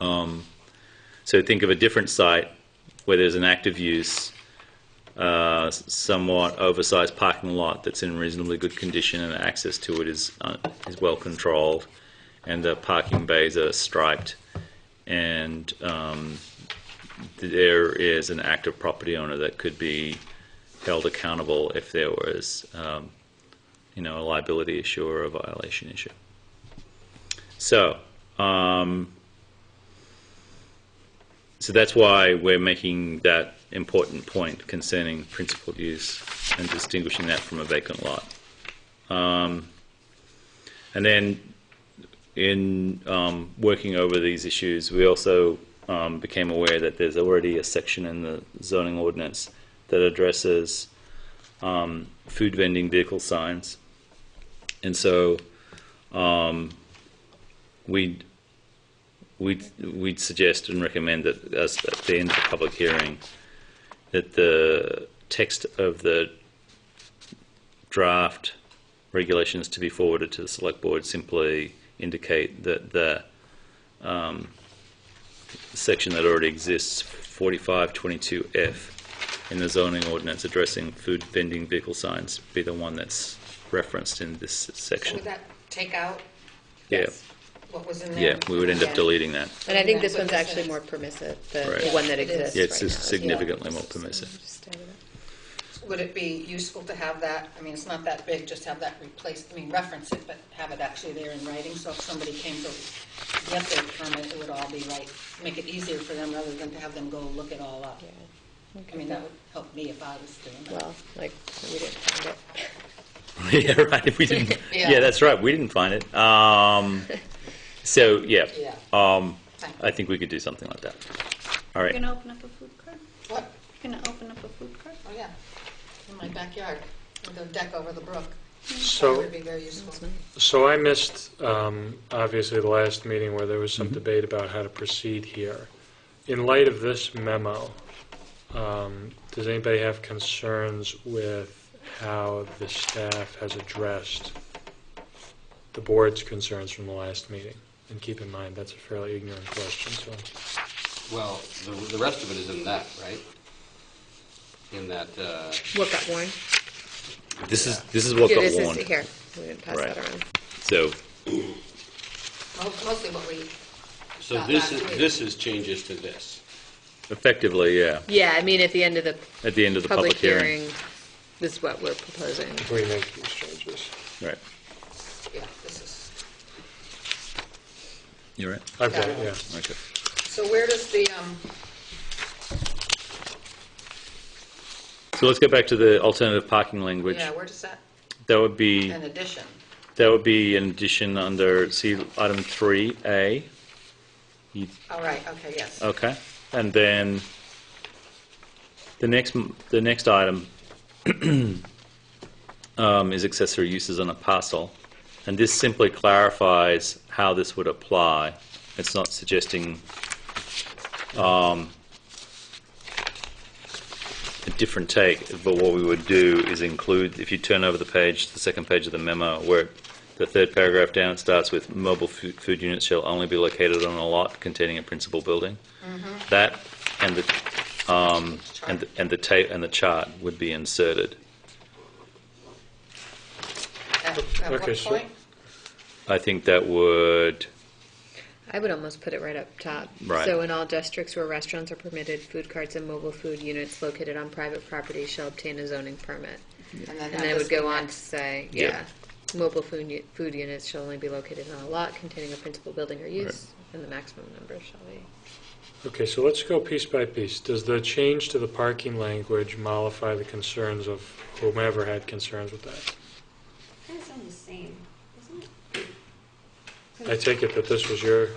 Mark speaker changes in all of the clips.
Speaker 1: Um, So think of a different site where there's an active use, uh, somewhat oversized parking lot that's in reasonably good condition and access to it is, uh, is well controlled, and the parking bays are striped, and um, there is an active property owner that could be held accountable if there was, um, you know, a liability issue or a violation issue. So, So that's why we're making that important point concerning principled use and distinguishing that from a vacant lot. Um, and then in um, working over these issues, we also um, became aware that there's already a section in the zoning ordinance that addresses um, food vending vehicle signs. And so um, we we'd, we'd suggest and recommend that as at the end of the public hearing, that the text of the draft regulations to be forwarded to the select board simply indicate that the um, section that already exists, 4522F, in the zoning ordinance addressing food vending vehicle signs, be the one that's referenced in this section.
Speaker 2: Would that take out?
Speaker 1: Yeah,
Speaker 2: What was in
Speaker 1: yeah,
Speaker 2: there?
Speaker 1: we would end up
Speaker 2: Okay.
Speaker 1: deleting that.
Speaker 3: And I think this
Speaker 2: What
Speaker 3: one's
Speaker 2: this
Speaker 3: actually
Speaker 2: is.
Speaker 3: more permissive, the
Speaker 1: Right.
Speaker 3: the one that
Speaker 2: Yeah, it is.
Speaker 3: exists
Speaker 1: Yeah,
Speaker 3: right
Speaker 1: it's
Speaker 3: now.
Speaker 1: just significantly more permissive.
Speaker 2: Would it be useful to have that, I mean, it's not that big, just have that replaced, I mean, reference it, but have it actually there in writing, so if somebody came to get their permit, it would all be right, make it easier for them rather than to have them go look it all up. I mean, that would help me if I was doing that.
Speaker 3: Well, like, we didn't find it.
Speaker 1: yeah, right. If we didn't, yeah.
Speaker 2: Yeah.
Speaker 1: that's right. We didn't find it. Um, so yeah,
Speaker 2: Yeah.
Speaker 1: Um,
Speaker 2: Thank you.
Speaker 1: I think we could do something like that. All
Speaker 4: You're
Speaker 1: right.
Speaker 4: gonna open up a food court?
Speaker 2: What?
Speaker 4: You're gonna open up a food court?
Speaker 2: Oh, yeah, in my backyard, with a deck over the brook. That
Speaker 5: So,
Speaker 2: would be very useful.
Speaker 5: so I missed, um, obviously, the last meeting where there was some debate about how to proceed here. In light of this memo, um, does anybody have concerns with how the staff has addressed the board's concerns from the last meeting? And keep in mind, that's a fairly ignorant question, so
Speaker 6: Well, the, the rest of it is in that, right? In that, uh,
Speaker 3: What got warned?
Speaker 1: This is this is what
Speaker 3: Yeah,
Speaker 1: got
Speaker 3: this is-
Speaker 1: warned.
Speaker 3: Here, we didn't pass
Speaker 1: Right.
Speaker 3: that around.
Speaker 1: So
Speaker 2: Most- Mostly what we,
Speaker 6: so
Speaker 2: Not
Speaker 6: this
Speaker 2: that
Speaker 6: is,
Speaker 2: weird.
Speaker 6: this is changes to this.
Speaker 1: effectively, yeah.
Speaker 3: Yeah, I mean, at the end of the
Speaker 1: At the end of the public,
Speaker 3: public hearing, this is what we're proposing.
Speaker 5: before you make these changes.
Speaker 1: Right.
Speaker 2: yeah, this is,
Speaker 1: You're right.
Speaker 5: I've got it, yeah.
Speaker 1: Okay.
Speaker 2: so where does the, um,
Speaker 1: So let's go back to the alternative parking language.
Speaker 2: yeah, where does that,
Speaker 1: That would be
Speaker 2: an addition?
Speaker 1: that would be an addition under see item three A.
Speaker 2: All right, okay, yes.
Speaker 1: Okay, and then the next, m- the next item um, is accessory uses on a parcel, and this simply clarifies how this would apply. It's not suggesting um, a different take, but what we would do is include, if you turn over the page, the second page of the memo, where the third paragraph down, it starts with mobile fu- food units shall only be located on a lot containing a principal building. That and the, um, and the- and the tape, and the chart would be inserted.
Speaker 2: At at what
Speaker 5: Okay, so-
Speaker 2: point?
Speaker 1: I think that would,
Speaker 3: I would almost put it right up top.
Speaker 1: Right.
Speaker 3: So in all districts where restaurants are permitted, food carts and mobile food units located on private property shall obtain a zoning permit.
Speaker 2: then
Speaker 3: And then it
Speaker 2: that
Speaker 3: would go
Speaker 2: was-
Speaker 3: on to say,
Speaker 1: Yeah.
Speaker 3: yeah, mobile food, u- food units shall only be located on a lot containing a principal building or use, and the maximum number shall be.
Speaker 5: Okay, so let's go piece by piece. Does the change to the parking language mollify the concerns of whomever had concerns with that?
Speaker 4: I think it's on the same, isn't it?
Speaker 5: I take it that this was your,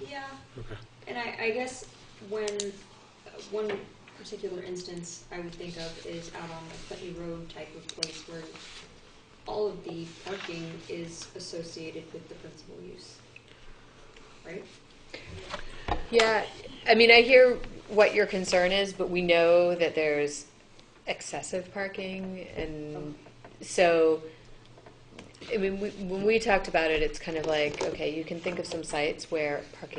Speaker 7: Yeah,
Speaker 5: okay.
Speaker 7: and I, I guess when, uh, one particular instance I would think of is out on the Putney Road type of place where all of the parking is associated with the principal use, right?
Speaker 3: Yeah, I mean, I hear what your concern is, but we know that there's excessive parking, and so, I mean, we- when we talked about it, it's kind of like, okay, you can think of some sites where parking